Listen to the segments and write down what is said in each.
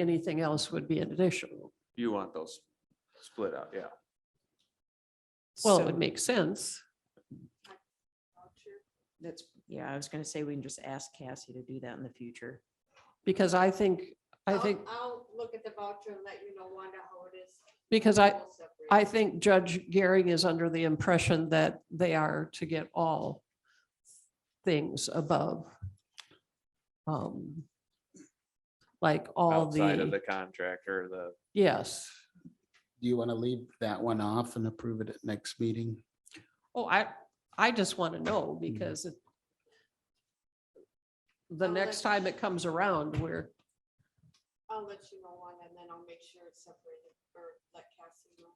Anything else would be an additional. You want those split out, yeah. Well, So it would make sense. That's, yeah, I was gonna say we can just ask Cassie to do that in the future. Because I think, I I'll- think, I'll look at the voucher and let you know, Wanda, how it is. because I, We'll separate I it. think Judge Gehring is under the impression that they are to get all things above. um, Like all Outside of the, the contractor, the, yes. Do you want to leave that one off and approve it at next meeting? Oh, I, I just want to know because it- the I'll let next time it comes around, we're, I'll let you know, Wanda, and then I'll make sure it's separated or let Cassie know.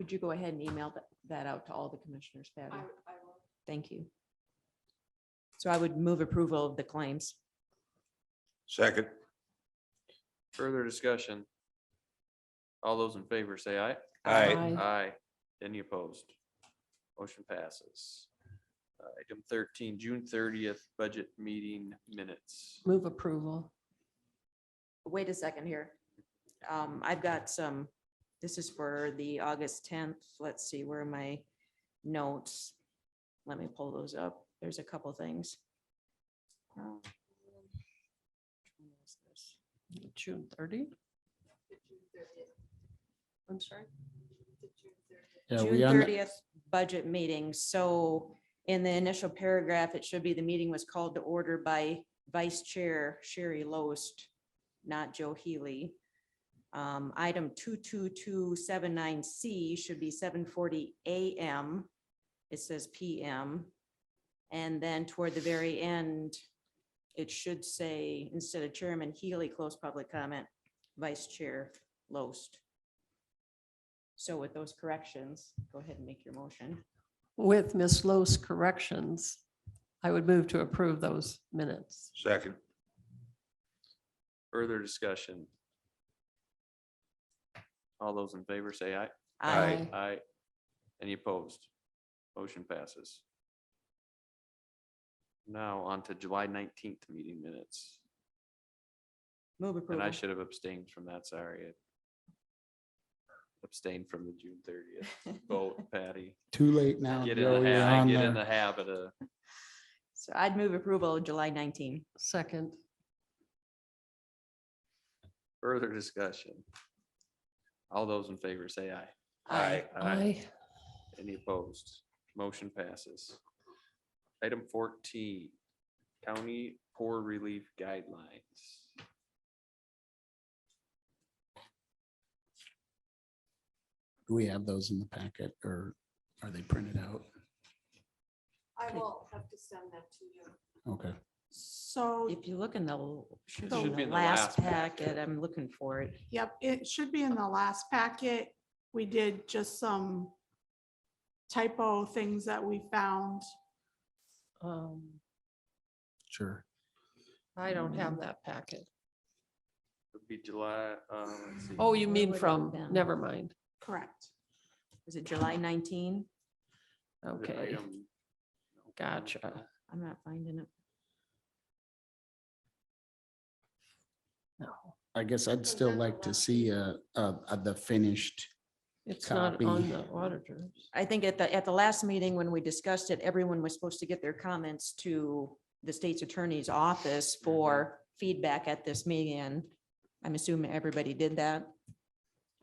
Would you go ahead and email that, that out to all the commissioners, Patty? I, I will. Thank you. So I would move approval of the claims. Second. further discussion. All those in favor say aye. Aye. Aye. Aye. Any opposed? Motion passes. Uh, Item thirteen, June thirtieth, budget meeting minutes. move approval. Wait a second here. Um, I've got some, this is for the August tenth. Let's see, where are my notes? Let me pull those up. There's a couple things. Um, which one was this? June thirty, The June 30th, I'm sorry. the June 30th. Yeah, June we on, the- thirtieth budget meeting, so in the initial paragraph, it should be the meeting was called to order by Vice Chair Sherry Loest, not Joe Healy. Um, item two-two-two-seven-nine C should be seven forty AM. It says PM. And then toward the very end, it should say, instead of Chairman Healy, close public comment, Vice Chair Loest. So with those corrections, go ahead and make your motion. With Ms. Lowe's corrections, I would move to approve those minutes. Second. Further discussion. All those in favor say aye. Aye. Aye. Any opposed? Motion passes. Now on to July nineteenth meeting minutes, Move and I approval. should have abstained from that, sorry. Abstained from the June thirtieth vote, Patty. too late now. Get Joe, in the, you're ha- on get in there. the habit of, So I'd move approval of July nineteen. Second, further discussion. All those in favor say aye. Aye. I, Any opposed? Motion passes. Item fourteen, county poor relief guidelines. Do we have those in the packet or are they printed out? I will have to send that to you. Okay. So, If you look in the, l- should It be in the last packet, I'm looking for it. yep, it should be in the last packet. We did just some typo things that we found. um, Sure. I don't have that packet. Would be July, uh, let's see. Oh, you Where mean would it from, been? never mind. Correct. Is it July nineteen? the Okay, item- gotcha. I'm not finding it. I guess I'd still like to see uh, uh, uh, the finished. It's not Copy. on the auditors. I think at the, at the last meeting when we discussed it, everyone was supposed to get their comments to the state's attorney's office for feedback at this meeting. and I'm assuming everybody did that.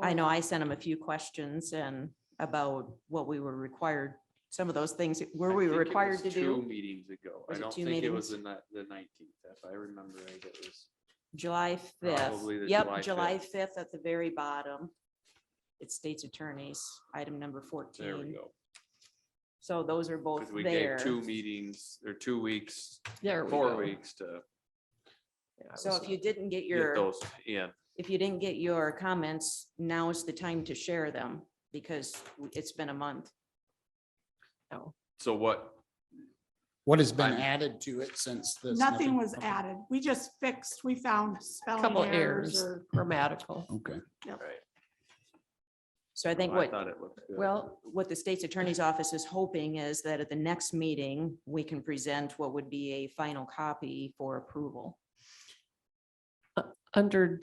I know I sent them a few questions and about what we were required, some of those things that- were I we think it required was to Two do. meetings ago. I Was it don't two think it was the meetings? ni- the nineteenth, if I remember right, it was. July fifth. Probably the July Yep, July 5th. fifth at the very bottom. It's state's attorneys, item number fourteen. There we go. So those are both Because we there. gave two meetings or two weeks, There we go. four weeks to Yeah, I So was if you didn't get get your, those in. if you didn't get your comments, now is the time to share them because it's been a month. So what, What has been I'm- added to it since this? Nothing was added. We just fixed, we found a spelling Couple errors errors, or grammatical. Okay. So I think I what, thought it looked good. well, what the state's attorney's office is hoping is that at the next meeting, we can present what would be a final copy for approval. under